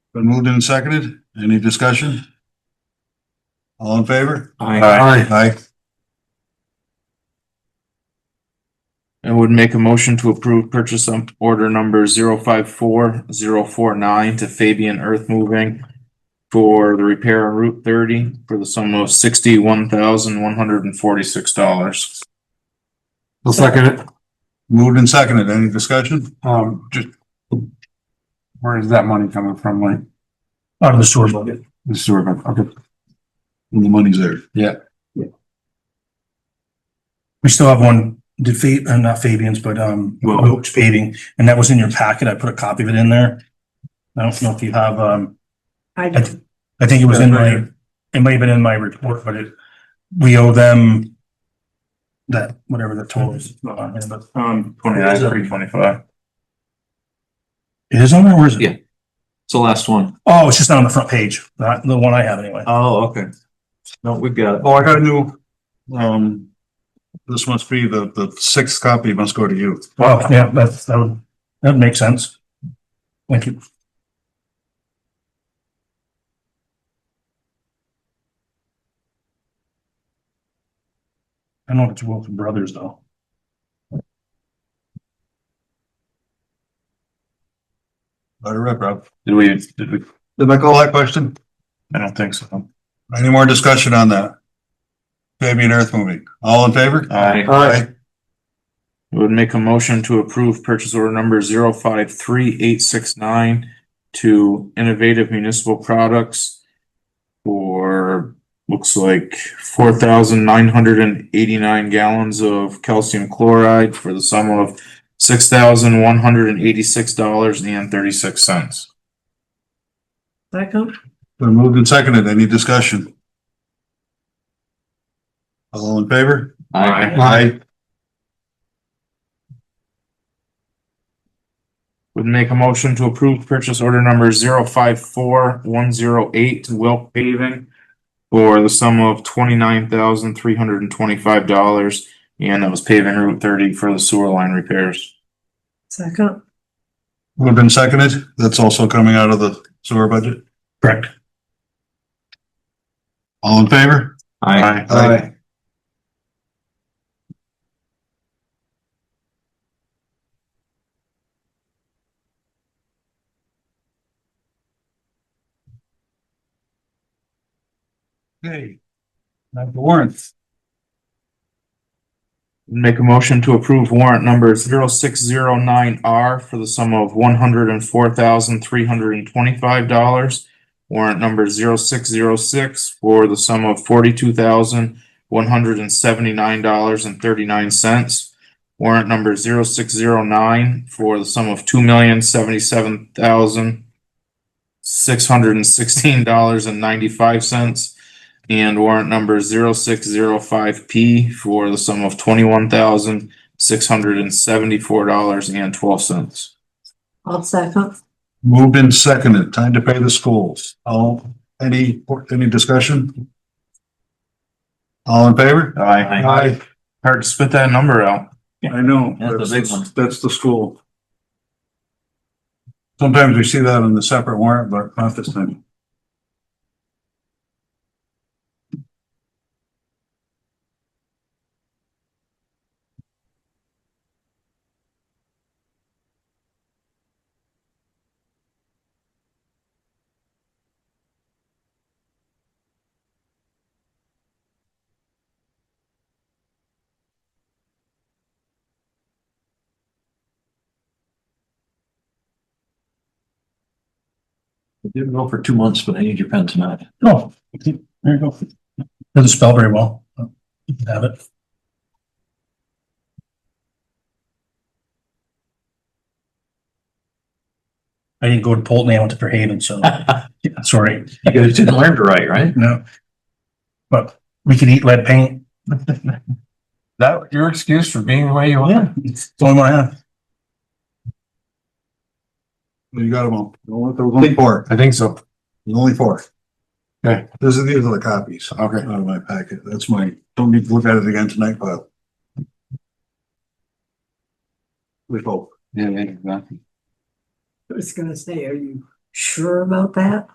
Been moved and seconded. Any discussion? All in favor? Aye. Aye. I would make a motion to approve purchase on order number zero five four zero four nine to Fabian Earth Moving for the repair on Route thirty for the sum of sixty-one thousand one hundred and forty-six dollars. I'll second it. Moved and seconded. Any discussion? Um, just. Where is that money coming from, like, out of the sewer budget. the sewer, bill? okay, The money's there. We still have one, did Fa- uh, not Fabian's, but, um, Wilk. Wilkes paving, and that was in your packet. I put a copy of it in there. I don't know if you have, um, I I, do. th- I think it was in my, it may have been in my report, but it, we owe them that, whatever the total is, It's not on here, but, um, Twenty-nine, three twenty-five. it is on there, or is it? Yeah. It's the last one. Oh, it's just not on the front page, not the one I have anyway. Oh, okay. No, we've got it. Oh, I got a new, um, this must be the, the sixth copy must go to you. Wow, yeah, that's, that would, that would make sense. Thank you. I know it's Wilson Brothers though. Let it rip, Rob. Did we, did we, Did I call that question? I don't think so. Any more discussion on that? Fabian Earth Moving. All in favor? Aye. Aye. I Would make a motion to approve purchase order number zero five three eight six nine to Innovative Municipal Products for, looks like four thousand nine hundred and eighty-nine gallons of calcium chloride for the sum of six thousand one hundred and eighty-six dollars and thirty-six cents. Second, Been moved and seconded. Any discussion? All in favor? Aye. Aye. Would make a motion to approve purchase order number zero five four one zero eight to Wilk Paving for the sum of twenty-nine thousand three hundred and twenty-five dollars, and that was paving Route thirty for the sewer line repairs. second, Moved and seconded. That's also coming out of the sewer budget. Correct. All in favor? Aye. Aye. Okay. Now the warrants. Make a motion to approve warrant number zero six zero nine R for the sum of one hundred and four thousand three hundred and twenty-five dollars. Warrant number zero six zero six for the sum of forty-two thousand one hundred and seventy-nine dollars and thirty-nine cents. Warrant number zero six zero nine for the sum of two million seventy-seven thousand six hundred and sixteen dollars and ninety-five cents. And warrant number zero six zero five P for the sum of twenty-one thousand, six hundred and seventy-four dollars and twelve cents. I'll second. Moved and seconded. Time to pay the schools. All, any, any discussion? All in favor? Aye. Aye. Hard to spit that number out. I know. That's the big one. That's the school. Sometimes we see that in the separate warrant, but not this time. It didn't go for two months, but I need your pen tonight. Oh, there you go. Doesn't spell very well. You can Have it. I didn't go to Polton, I went to Fairhaven, so sorry, You guys didn't learn to write, right? no. But we could eat lead paint. that your excuse for being the way you are? It's the only one I have. You got them all. There was Only four, I think so. There was only four. Okay. These are, these are the copies. Okay. Out of my packet. That's my, don't need to look at it again tonight, but. We hope. Yeah, exactly. I was gonna say, are you sure about that?